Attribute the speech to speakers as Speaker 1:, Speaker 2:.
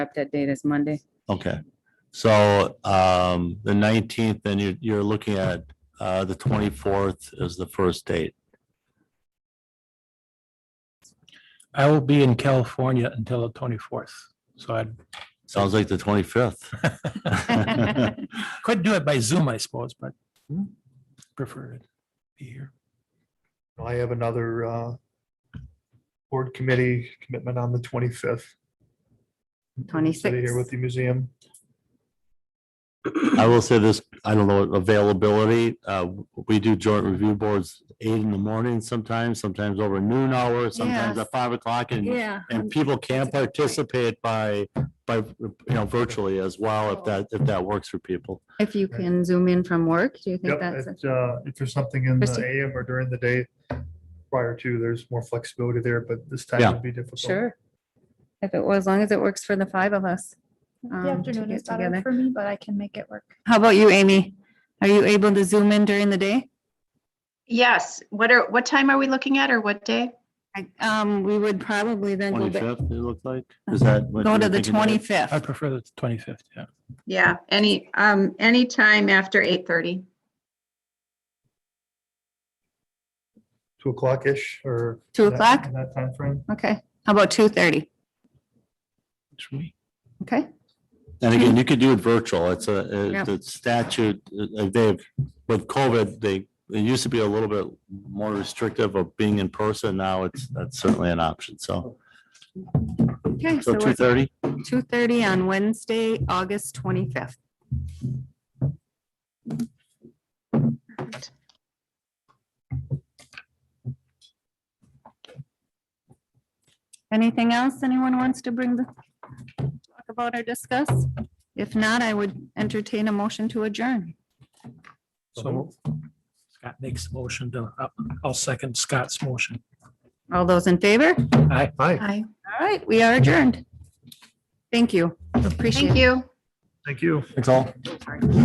Speaker 1: up that date as Monday.
Speaker 2: Okay, so um, the nineteenth, then you're, you're looking at uh, the twenty-fourth is the first date.
Speaker 3: I will be in California until the twenty-fourth, so I
Speaker 2: Sounds like the twenty-fifth.
Speaker 3: could do it by Zoom, I suppose, but prefer to be here.
Speaker 4: I have another uh, board committee commitment on the 25th. City Here with
Speaker 1: 26th.
Speaker 4: the museum.
Speaker 2: I will say this, I don't know, availability, uh, we do joint review boards eight in the morning sometimes, sometimes over noon hour, sometimes
Speaker 1: Yes.
Speaker 2: at five o'clock and
Speaker 1: Yeah.
Speaker 2: and people can
Speaker 1: That's a good point.
Speaker 2: participate by, by, you know, virtually as well, if that, if that works for people.
Speaker 1: If you can zoom in from work, do you think
Speaker 4: Yep,
Speaker 1: that's, a-
Speaker 4: it, uh, If there's something in the
Speaker 1: Christie?
Speaker 4: AM or during the day prior to, there's more flexibility there, but this time
Speaker 2: Yeah.
Speaker 4: would be difficult.
Speaker 1: sure. If it, well, as long as it works for the five of us. um,
Speaker 5: The
Speaker 1: to
Speaker 5: afternoon
Speaker 1: get
Speaker 5: is better
Speaker 1: together.
Speaker 5: for me, but I can make it work.
Speaker 1: How about you, Amy? Are you able to zoom in during the day?
Speaker 6: Yes, what are, what time are we looking at or what day?
Speaker 1: I- Um, we would probably then go back,
Speaker 2: Twenty-fifth, it looked like, is that?
Speaker 1: Uh-huh.
Speaker 2: what
Speaker 1: go
Speaker 2: you
Speaker 1: to the
Speaker 2: were thinking, Dave?
Speaker 3: I
Speaker 1: twenty-fifth.
Speaker 3: prefer the twenty-fifth, yeah.
Speaker 6: Yeah, any, um, any time after eight thirty.
Speaker 4: Two o'clock-ish or.
Speaker 1: Two
Speaker 4: in that-
Speaker 1: o'clock?
Speaker 4: In that timeframe.
Speaker 1: Okay, how about two thirty?
Speaker 3: It's me.
Speaker 1: Okay,
Speaker 2: And again, you could do it virtual. It's a,
Speaker 1: Yeah.
Speaker 2: it- the statute, uh, they've, with COVID, they, it used to be a little bit more restrictive of being in person. Now it's, that's certainly an option. So,
Speaker 1: okay,
Speaker 2: so two
Speaker 1: so
Speaker 2: thirty?
Speaker 1: two thirty on Wednesday, August twenty-fifth. Anything else anyone wants to bring the, talk about or discuss? If not, I would entertain a motion to adjourn.
Speaker 3: So Scott makes the motion, to- I'll- I'll second Scott's motion.
Speaker 1: All those in favor?
Speaker 3: Aye.
Speaker 4: Hi,
Speaker 6: Hi,
Speaker 1: All right, we are adjourned. Thank you. Appreciate it.
Speaker 6: thank you.
Speaker 4: thank you.
Speaker 2: Thanks all.